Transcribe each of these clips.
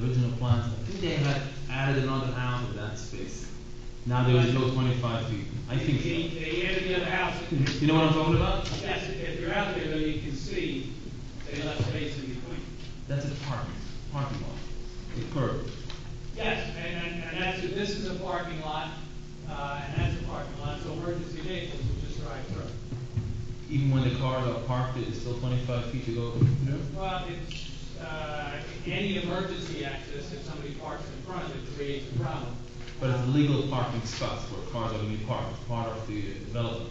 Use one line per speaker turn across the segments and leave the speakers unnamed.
the original plans, I think they had added another house in that space. Now there is no twenty-five feet, I think
He,
so.
he added the other house, and
You know what I'm talking about?
that's, if you're out there, though, you can see they left space in between.
That's a parking, parking lot, a curb.
Yes, and, and, and that's, this is a parking lot, uh, and that's a parking lot, so emergency vehicles will just drive through.
Even when the cars are parked, it's still twenty-five feet to go.
Well, it's, uh, any emergency access, if somebody parks in front, it creates a problem.
But it's legal parking spots where cars are gonna be parked, part of the development.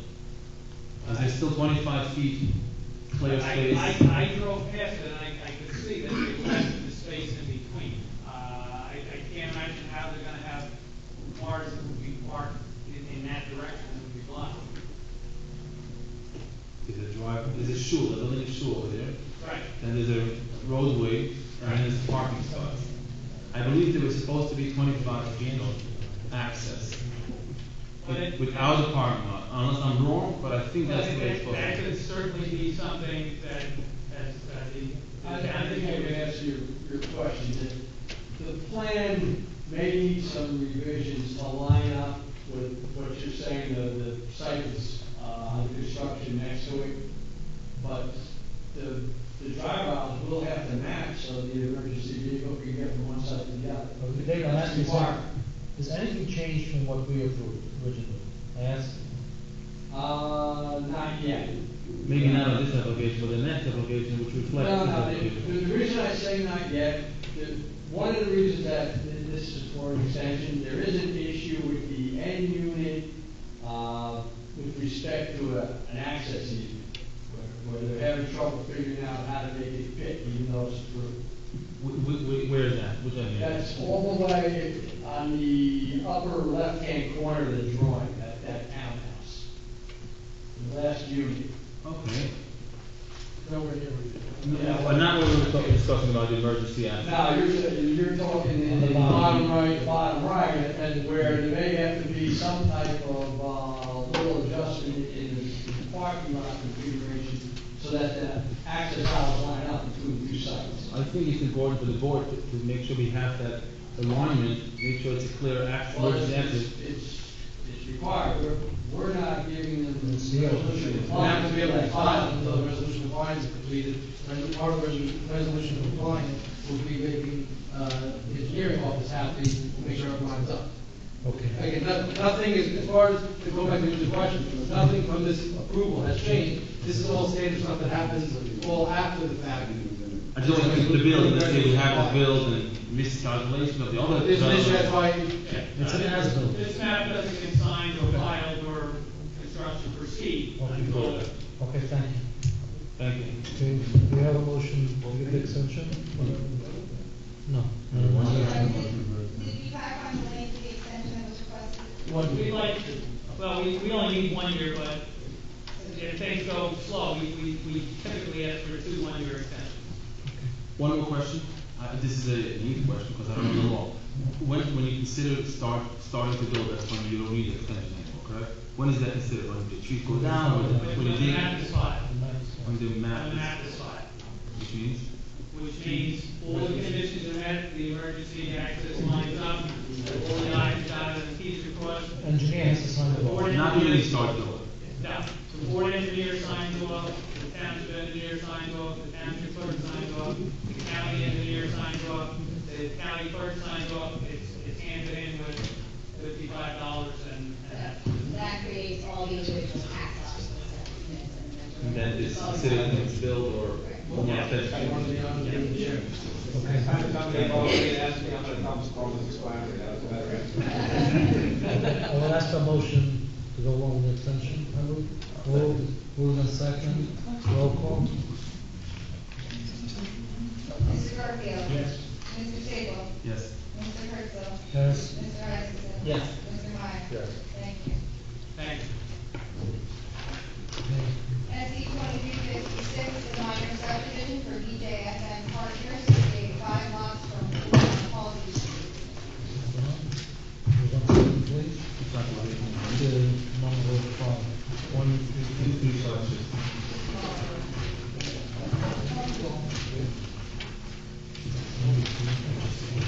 Is there still twenty-five feet clear space?
I, I, I drove past it, and I, I could see that they left the space in between. Uh, I, I can't imagine how they're gonna have cars that would be parked in, in that direction, would be blocked.
Is a drive, is a shul, there's a little shul over there,
Right.
then there's a roadway, and then there's parking spots. I believe there was supposed to be twenty-five feet of access
But it-
without the parking lot, unless I'm wrong, but I think
Well,
that's the way it's
That
supposed
that
to be.
could certainly be something that, as, uh, the.
I, I think I can answer your, your question. The- The plan may need some revisions to line up with what you're saying, the, the site is, uh, under construction next to it. But the, the drive aisles will have to match so the emergency vehicle can get from one side to the other.
Okay, David, I'm asking,
That's required.
has anything changed from what we approved originally? I asked,
Uh, not yet.
Maybe not on this application, but the next application which reflects this
No, no, the,
application.
the reason I say not yet, the, one of the reasons that thi- this is for an extension, there is an issue with the end unit, uh, with respect to a, an access easement, where- where they're having trouble figuring out how to make it fit, even though it's through.
Wh- wh- wh- where is that? Which avenue?
That's all the way on the upper left-hand corner of the drawing, that, that townhouse. The last unit.
Okay.
nowhere near
Yeah.
Well, not when we're talking- discussing about the emergency access.
Now, you're, you're talking in the bottom right, bottom right, and where there may have to be some type of, uh, little adjustment in the parking lot configuration so that the access aisles line up between the two sites.
I think it's important for the board to, to make sure we have that alignment, make sure it's a clear access,
Well, it's,
emergency
it's,
access.
it's- it's required, we're, we're not giving them the
Seal.
resolution
Not
requirement.
to be able to file until the resolution compliance is completed, and part of the resolu- resolution compliance will be making, uh, the hearing office happy, to make sure it lines up.
Okay.
Again, no- nothing is, as far as, to go back to your question, nothing from this approval has changed, this is all standard stuff that happens all after the fact.
I just want to keep the bill, let's say we have the bill and miscalculation of the other.
This issue, that's
development.
why,
It's an as-built.
Uh, This map doesn't get signed or filed or construction proceed
Okay.
until
Okay, thank you.
Thank you.
Okay, we have a motion to give the extension?
No.
Did you back on the link to the extension that was requested?
We'd like to, well, we, we only need one year, but if things go slow, we, we, we typically ask for two one-year extensions.
One more question, uh, this is a neat question, because I don't know the law. When, when you consider start, starting to build, that's when you don't need extension anymore, correct? When is that considered, when the trees go down, when the, when
When
the
the map is
dig,
filed,
when the
when the
map
map is filed.
is, which means?
which means all the conditions are met, the emergency access lines up, all the I's are dotted and the T's are crossed.
Engineer has to sign the law.
Board
Not when you
engineer-
start building.
No, the board engineer signs off, the township engineer signs off, the township clerk signs off, the county engineer signs off, the county clerk signs off, it's, it's handed in with fifty-five dollars and, and that's.
That creates all the individual tax officers that we need.
And then it's considered when it's built or one more
I
extension.
wanted to be honest with you.
I will ask for a motion to go along with the extension. I will. Move, move in second, roll call.
Mr. Garfield. Yes. Mr. Sable.
Yes.
Mr. Herzl.
Yes.
Mr. Isaacson.
Yes.
Mr. Meyer.
Yes.